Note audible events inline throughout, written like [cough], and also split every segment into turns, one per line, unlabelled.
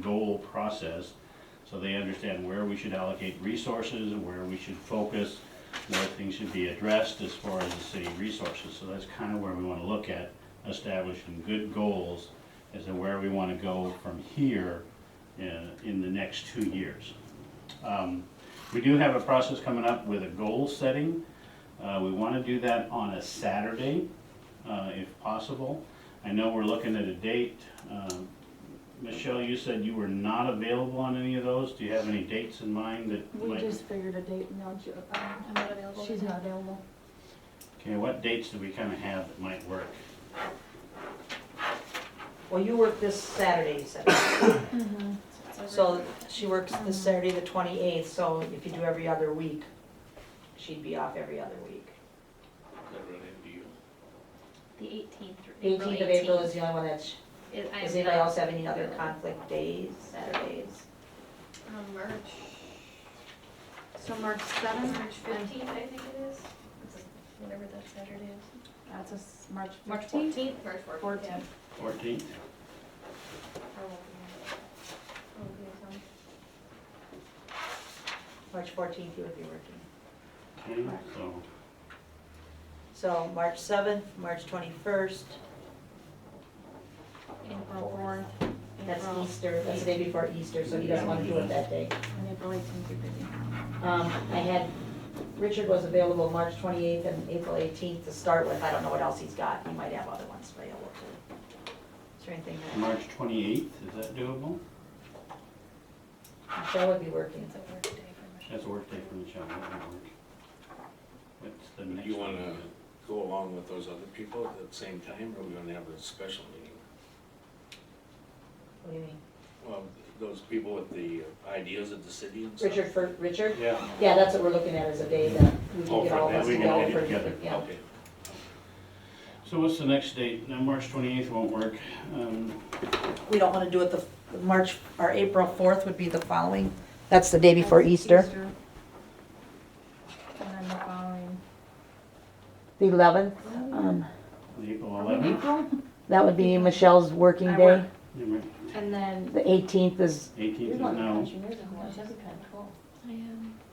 goal process, so they understand where we should allocate resources, and where we should focus, where things should be addressed as far as the city resources. So that's kind of where we want to look at, establishing good goals as to where we want to go from here in, uh, in the next two years. Um, We do have a process coming up with a goal setting. Uh, We want to do that on a Saturday, uh, if possible. I know we're looking at a date, um, Michelle, you said you were not available on any of those. Do you have any dates in mind that
We
might?
just figured a date and now Jo- um,
I'm not available.
she's not available.
Okay, what dates do we kind of have that might work?
Well, you work this Saturday, you [coughs] said.
Mm-hmm.
So she works this Saturday, the 28th, so if you do every other week, she'd be off every other week.
The eighteenth.
The 18th of April is the only one that's,
Is, I
does
am
anybody
not,
else have any other conflict days, Saturdays?
Um, March. So March seventh,
March fifteenth, I think it is. It's a- Whatever that Saturday is.
That's a s- March
March
fifteenth.
fourteenth? March
Fourteenth.
Fourteenth?
March 14th, you would be working.
Okay, so,
So March 7th, March 21st,
April fourth.
that's
April-
Easter, that's the day before Easter, so he doesn't want to do it that day.
And April eighteenth, you're busy.
Um, I had, Richard was available March 28th and April 18th to start with. I don't know what else he's got. He might have other ones available too. Is there anything that
March twenty-eighth, is that doable?
Michelle would be working?
It's a work day for Michelle.
That's a work day for Michelle, that won't work. What's the next?
You
one?
wanna go along with those other people at the same time, or we gonna have a special meeting?
What do you mean?
Well, those people with the ideas of the city and stuff?
Richard for, Richard?
Yeah.
Yeah, that's what we're looking at is a day that we
Oh,
can get
for
all of
that,
us
we can
together.
get
for-
together.
Yeah.
Okay.
So what's the next date? Now, March twenty-eighth won't work. Um,
We don't want to do it the, the March, or April 4th would be the following. That's the day before
That's
Easter.
And then the following.
The 11th, um,
April
Are we in
eleventh?
April?
that would be Michelle's working
I
day.
work. And then.
The 18th is,
Eighteenth is no.
I am,
My son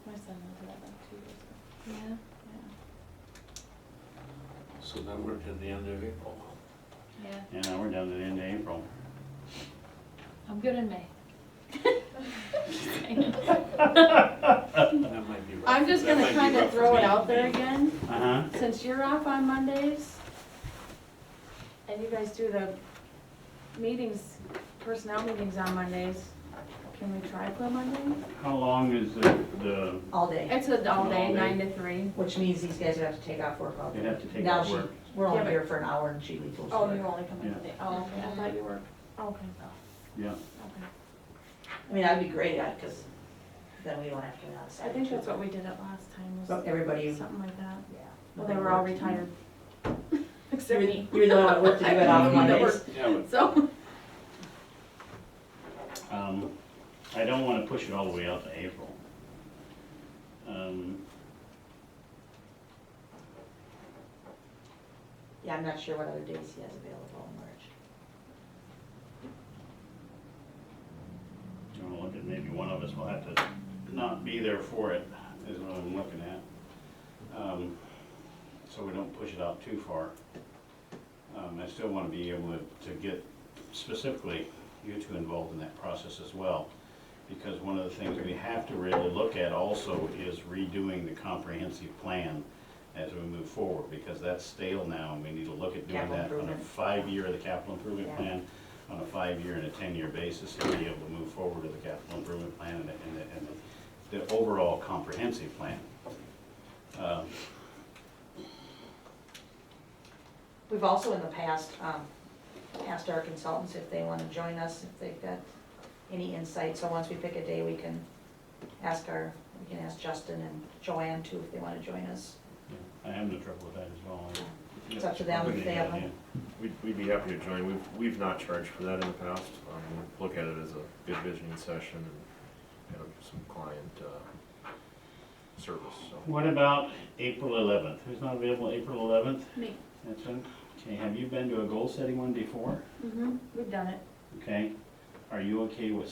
was eleven two years ago.
yeah.
So then we're to the end of April.
Yeah.
Yeah, now we're down to the end of April.
I'm good in May.
That might be rough.
I'm just
That
gonna
might
kind
be rough
of
for
throw it
me.
out there again.
Uh-huh.
Since you're off on Mondays, and you guys do the meetings, personnel meetings on Mondays, can we try for Monday?
How long is the, the,
all day,
It's a all day,
All day.
nine to three.
which means these guys would have to take off work all day.
They'd have to take
Now
off
she-
work.
We're
Yeah,
only
but-
here for an hour and she leaves.
Oh, you're only coming
Yeah.
today, oh, okay, I thought you were, okay,
yeah,
okay.
I mean, that'd be great, because then we don't have to go outside.
I think that's what we did it last
But
time,
everybody,
was something like that.
yeah.
Well, they were all [laughs] retired. Except me.
You're the only one that worked to
[laughs]
do it on
I'm the one that
Mondays.
Yeah, but
So,
um, I don't wanna push it all the way out to April. Um,
Yeah, I'm not sure what other days he has available in March.
you wanna look at, maybe one of us will have to not be there for it, is what I'm looking at. Um, So we don't push it out too far. Um, I still wanna be able to, to get specifically you two involved in that process as well. Because one of the things we have to really look at also is redoing the comprehensive plan as we move forward, because that's stale now, and we need to look at doing
Capital
that on a
improvement.
five-year, the capital improvement
Yeah.
plan, on a five-year and a ten-year basis, to be able to move forward with the capital improvement plan and the, and the- and the, the overall comprehensive plan. Um,
We've also in the past, um, asked our consultants if they want to join us, if they've got any insight. So once we pick a day, we can ask our, we can ask Justin and Joanne too, if they want to join us.
I have no trouble with that as well.
It's up to them if they have them.
We'd, we'd be happy to join. We've, we've not charged for that in the past. Um, we look at it as a good visioning session and kind of some client, uh, service, so.
What about April eleventh? Who's not available April eleventh?
me,
That's it. Okay,
Mm-hmm.
have you been to a goal-setting one before?
hmm we've done it.
Okay, are you okay with